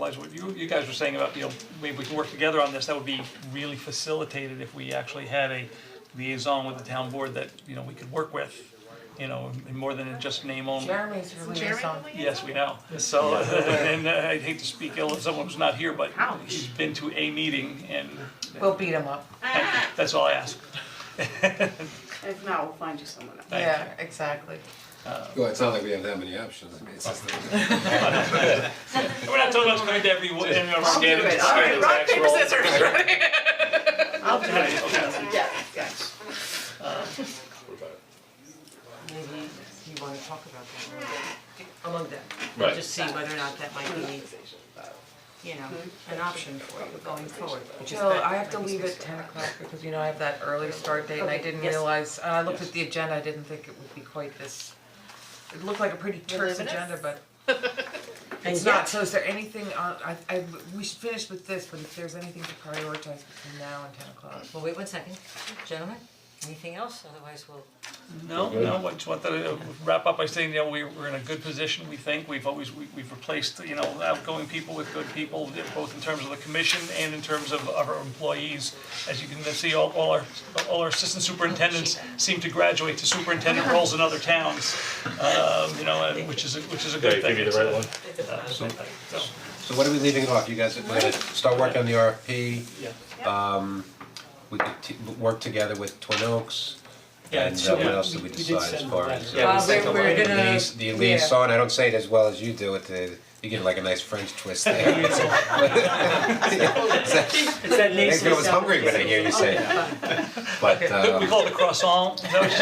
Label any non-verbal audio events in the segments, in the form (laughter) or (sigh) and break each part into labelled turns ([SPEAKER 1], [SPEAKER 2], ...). [SPEAKER 1] Liza, what you, you guys were saying about, you know, maybe we can work together on this, that would be really facilitated if we actually had a liaison with the town board that, you know, we could work with, you know, and more than just name only.
[SPEAKER 2] Jeremy's your liaison.
[SPEAKER 1] Yes, we know, so, (laughs) and uh, I'd hate to speak ill of someone who's not here, but he's been to a meeting and
[SPEAKER 2] We'll beat him up.
[SPEAKER 1] that's all I ask.
[SPEAKER 3] If not, we'll find you someone else.
[SPEAKER 1] Thank
[SPEAKER 2] Yeah, exactly.
[SPEAKER 4] Well, it's not like we have that many options, I mean, it's just.
[SPEAKER 1] We're not talking about going to every, every of our
[SPEAKER 2] I'll do
[SPEAKER 1] standards,
[SPEAKER 2] it. All right,
[SPEAKER 1] standards,
[SPEAKER 2] rock,
[SPEAKER 1] actual-
[SPEAKER 2] paper, scissors,
[SPEAKER 1] (laughs)
[SPEAKER 2] right?
[SPEAKER 3] I'll do it.
[SPEAKER 1] Okay.
[SPEAKER 3] Yes, yes.
[SPEAKER 5] Maybe
[SPEAKER 2] You wanna talk about that among them,
[SPEAKER 6] Right.
[SPEAKER 5] just see whether or not that might be, you know, an option for you going forward, which is
[SPEAKER 2] Jill,
[SPEAKER 5] better.
[SPEAKER 2] I have to leave at ten o'clock because you know I have that early start date and I
[SPEAKER 5] Okay,
[SPEAKER 2] didn't
[SPEAKER 5] yes.
[SPEAKER 2] realize, and I looked at the agenda, I didn't think it would be quite this. It looked like a pretty terse
[SPEAKER 5] Voluminous?
[SPEAKER 2] agenda, but
[SPEAKER 5] And
[SPEAKER 2] it's not,
[SPEAKER 5] yet-
[SPEAKER 2] so is there anything on, I I, we should finish with this, but if there's anything to prioritize between now and ten o'clock.
[SPEAKER 5] Well, wait one second, gentlemen, anything else, otherwise we'll,
[SPEAKER 1] No, no, I just want to wrap up by saying, you know, we we're in a good position, we think, we've always, we we've replaced, you know, outgoing people with good people, both in terms of the commission and in terms of of our employees. As you can see, all all our all our assistant superintendents seem to graduate to superintendent roles in other towns. Um, you know, and which is a which is a good
[SPEAKER 6] Okay,
[SPEAKER 1] thing.
[SPEAKER 6] give me the right one.
[SPEAKER 1] Uh, so, so,
[SPEAKER 4] So what are we leaving off, you guys, we're gonna start working on the RFP,
[SPEAKER 1] yeah.
[SPEAKER 4] Um, we could t- work together with Twin Oaks.
[SPEAKER 1] Yeah,
[SPEAKER 4] And
[SPEAKER 1] it's-
[SPEAKER 4] uh, what
[SPEAKER 1] yeah,
[SPEAKER 4] else did we decide as far as?
[SPEAKER 1] Yeah, we
[SPEAKER 4] uh,
[SPEAKER 1] sent
[SPEAKER 2] Uh, we're- we're
[SPEAKER 4] the
[SPEAKER 2] gonna-
[SPEAKER 4] liaison- The
[SPEAKER 2] yeah.
[SPEAKER 4] liaison, I don't say it as well as you do, it, uh, you get like a nice French twist there. (laughs)
[SPEAKER 5] it's that
[SPEAKER 4] I think I was hungry when I hear you say it. But
[SPEAKER 1] We
[SPEAKER 4] um,
[SPEAKER 1] call it a croissant, is that what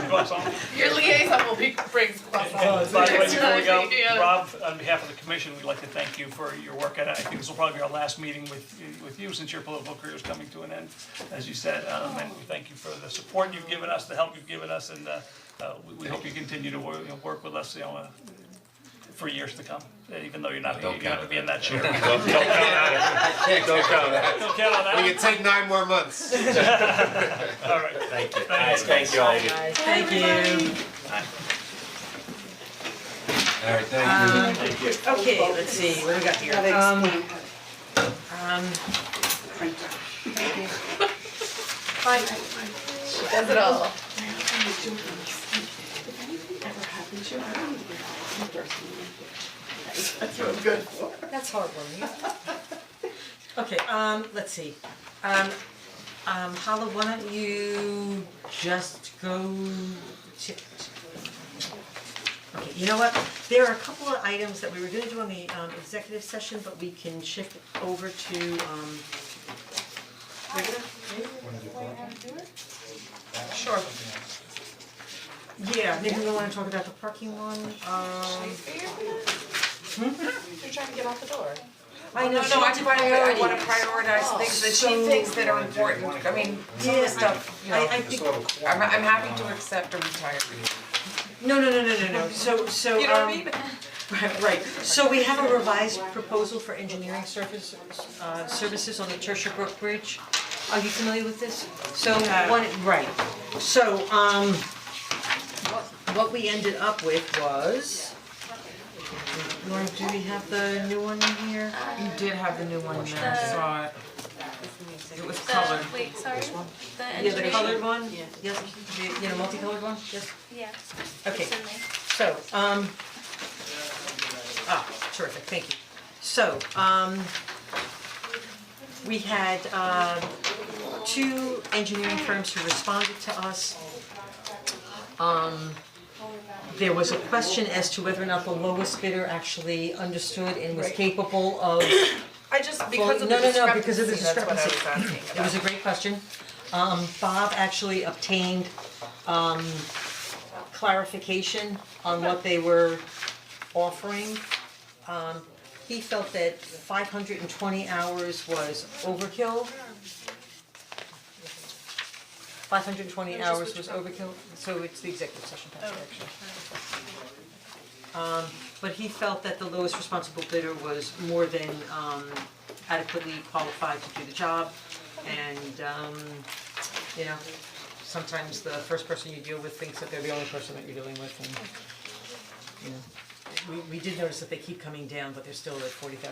[SPEAKER 1] you're saying? (laughs) Croissant.
[SPEAKER 2] Your liaison will be, brings
[SPEAKER 1] And by the way, before we go, Rob, on behalf of the commission, we'd like to thank you for your work, and I think this will probably be our last meeting with, with you since your political career is coming to an end, as you said, um, and we thank you for the support you've given us, the help you've given us, and, uh, uh, we, we hope you continue to work, you know, work with us, you know, uh, for years to come, even though you're not, you're
[SPEAKER 4] Don't
[SPEAKER 1] not gonna
[SPEAKER 4] count
[SPEAKER 1] be in that chair. (laughs)
[SPEAKER 6] Don't don't
[SPEAKER 4] go
[SPEAKER 6] count on
[SPEAKER 4] (laughs) go.
[SPEAKER 1] Don't count on that,
[SPEAKER 4] We could take nine more months.
[SPEAKER 1] all right. Thank you. Thanks,
[SPEAKER 6] Thank you all of you.
[SPEAKER 5] Thank you.
[SPEAKER 4] All right,
[SPEAKER 2] Um,
[SPEAKER 4] thank you.
[SPEAKER 5] Okay, let's see, what do we got here?
[SPEAKER 3] That
[SPEAKER 5] Um,
[SPEAKER 3] explains it.
[SPEAKER 2] Um,
[SPEAKER 3] Does it all. If anything ever happened to you, I don't even know. I'm thirsty. That's what I'm good for.
[SPEAKER 5] That's heartwarming. Okay, um, let's see, um, um, Hala, why don't you just go to. Okay, you know what, there are a couple of items that we were gonna do on the um executive session, but we can shift over to um. Regular, maybe? Sure. Yeah, maybe we wanna talk about the parking one, um. Hmm?
[SPEAKER 2] You're trying to get out the door.
[SPEAKER 5] I know,
[SPEAKER 2] No, no, I
[SPEAKER 5] she
[SPEAKER 2] just wanna, I wanna
[SPEAKER 5] priorities.
[SPEAKER 2] prioritize things that she thinks that are important, I mean, some of
[SPEAKER 5] Yeah,
[SPEAKER 2] the stuff, you know,
[SPEAKER 5] I I think,
[SPEAKER 2] I'm I'm happy to accept a retiree.
[SPEAKER 5] no, no, no, no, no, no, so so um. (laughs) Right, right, so we have a revised proposal for engineering services, uh services on the Tertia Brook Bridge. Are you familiar with this? So one, right, so um what what we ended up with was. Lauren, do we have the new one here?
[SPEAKER 2] You did have the new one in there, I saw it. It was colored.
[SPEAKER 7] The, wait, sorry, the
[SPEAKER 5] Yeah, the
[SPEAKER 7] engineering,
[SPEAKER 5] colored one? Yes, the, you know, multicolored one, yes,
[SPEAKER 7] yeah,
[SPEAKER 5] okay.
[SPEAKER 7] it's in there.
[SPEAKER 5] So, um, ah, terrific, thank you. So, um, we had, um, two engineering firms who responded to us. Um, there was a question as to whether or not the lowest bidder actually understood and was capable of
[SPEAKER 2] I just,
[SPEAKER 5] because of the no, no, no, because of the discrepancy, that's what I was discrepancy.
[SPEAKER 2] asking
[SPEAKER 5] it was a great question. Um, Bob actually obtained, um, clarification on what they were offering. Um, he felt that five hundred and twenty hours was overkill. Five hundred and twenty hours was overkill, so it's the executive session, Patrick, actually. Um, but he felt that the lowest responsible bidder was more than, um, adequately qualified to do the job. And um, you know, sometimes the first person you deal with thinks that they're the only person that you're dealing with and you know, we we did notice that they keep coming down, but they're still at forty thousand